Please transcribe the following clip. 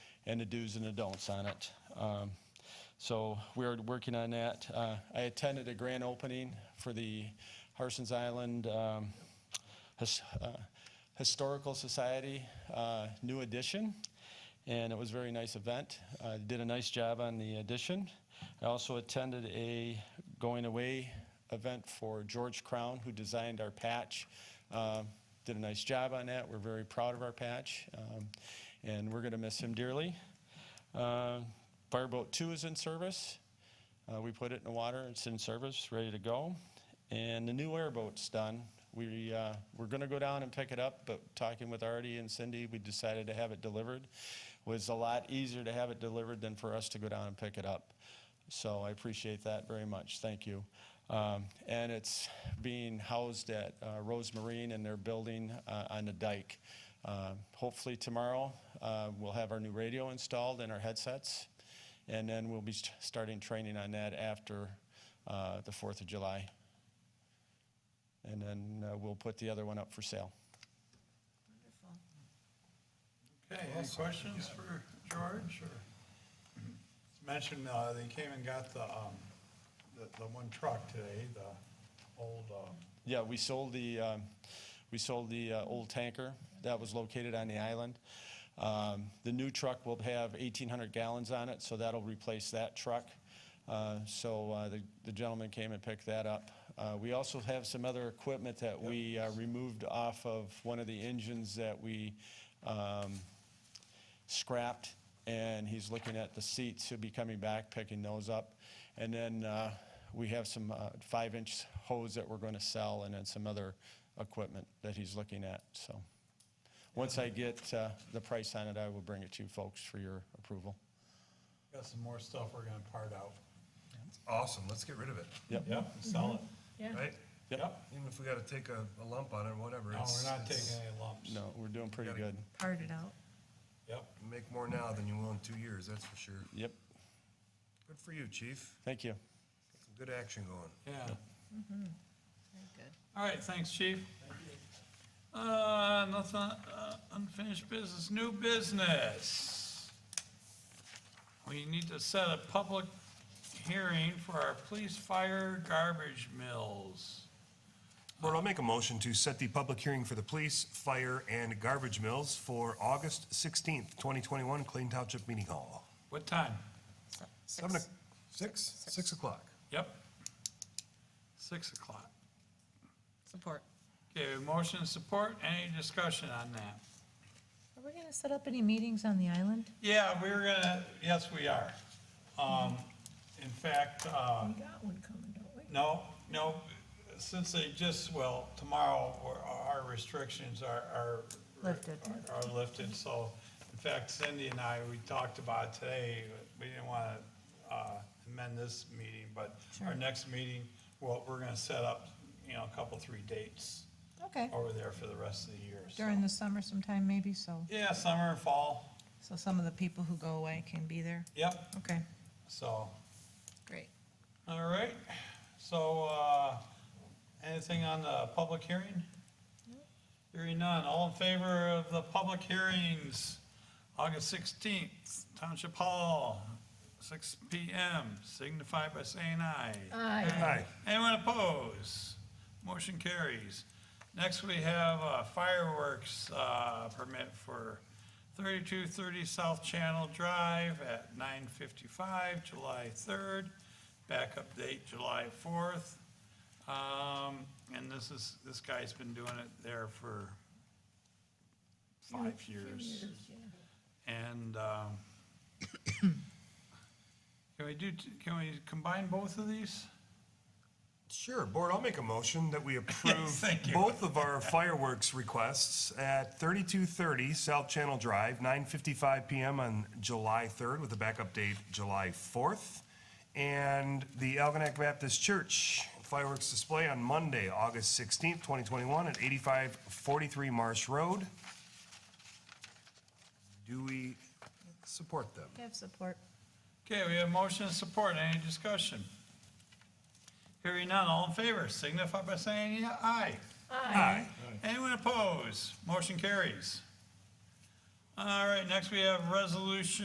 and the do's and the don'ts on it. Um, So we are working on that. Uh, I attended a grand opening for the Harson's Island um, His- uh, Historical Society uh, New Edition, and it was a very nice event. Uh, Did a nice job on the addition. I also attended a going-away event for George Crown, who designed our patch. Uh, Did a nice job on that. We're very proud of our patch, um, and we're going to miss him dearly. Uh, Fireboat 2 is in service. Uh, We put it in the water, it's in service, ready to go. And the new airboat's done. We, uh, we're gonna go down and pick it up, but talking with Artie and Cindy, we decided to have it delivered. Was a lot easier to have it delivered than for us to go down and pick it up. So I appreciate that very much, thank you. Um, And it's being housed at uh, Rose Marine in their building uh, on the dike. Uh, Hopefully tomorrow, uh, we'll have our new radio installed and our headsets. And then we'll be st- starting training on that after uh, the 4th of July. And then uh, we'll put the other one up for sale. Okay, any questions for George, or? It's Mentioned, uh, they came and got the, um, the, the one truck today, the old, um, Yeah, we sold the, um, we sold the uh, old tanker that was located on the island. Um, The new truck will have 1,800 gallons on it, so that'll replace that truck. Uh, So uh, the the gentleman came and picked that up. Uh, We also have some other equipment that we uh, removed off of one of the engines that we um, scrapped, and he's looking at the seats. He'll be coming back, picking those up. And then uh, we have some uh, five-inch hose that we're going to sell, and then some other equipment that he's looking at, so. Once I get uh, the price on it, I will bring it to you folks for your approval. got some more stuff we're gonna part out. Awesome, let's get rid of it, Yep. Sell it. Yeah. right? Yep. Even if we gotta take a, a lump on it, whatever. No, it's- we're not taking it's- any lumps. No, we're doing pretty Gotta- good. parted out. Yep, Make more now than you will in two years, that's for sure. Yep, Good for you, chief. thank you. Some Good action going. yeah. Very good. All right, thanks, chief. Uh, nothing, uh, unfinished business, new business. We need to set a public hearing for our police fire garbage mills. Board, I'll make a motion to set the public hearing for the police, fire, and garbage mills for August sixteenth, twenty twenty-one, Clayton Township Meeting Hall. What time? Seven, o- six, six o'clock. Yep. Six o'clock. Support. Okay, we have motion and support, any discussion on that? Are we gonna set up any meetings on the island? Yeah, we're gonna, yes, we are. Um, in fact, uh, We got one coming, don't we? No, no, since they just, well, tomorrow, our- our restrictions are, are. Lifted. Are lifted, so, in fact, Cindy and I, we talked about it today, we didn't wanna, uh, amend this meeting, but our Sure. next meeting, well, we're gonna set up, you know, a couple, three dates Okay, over there for the rest of the year, so. during the summer sometime maybe, so, Yeah, summer and fall, so some of the people who go away can be there. yep, Okay, so, great. all right, so, uh, anything on the public hearing? Hearing none, all in favor of the public hearings, August sixteenth, Township Hall, six P M, signify by saying aye. Aye. Anyone opposed? Motion carries. Next, we have uh, fireworks uh, permit for 3230 South Channel Drive at 9:55, July 3rd. Backup date, July 4th. Um, And this is, this guy's been doing it there for five years. And um, can we do, t- can we combine both of these? Sure, board, I'll make a motion that we approve Thank you. both of our fireworks requests at thirty-two thirty South Channel Drive, nine fifty-five PM on July third with a backup date July fourth. And the Algonac Baptist Church fireworks display on Monday, August sixteenth, twenty twenty-one at eighty-five forty-three Marsh Road. Do we support them? I have support. Okay, we have motion and support. Any discussion? Hearing none, all in favor, signify by saying aye. Aye. Anyone opposed? Motion carries. All right, next we have resolution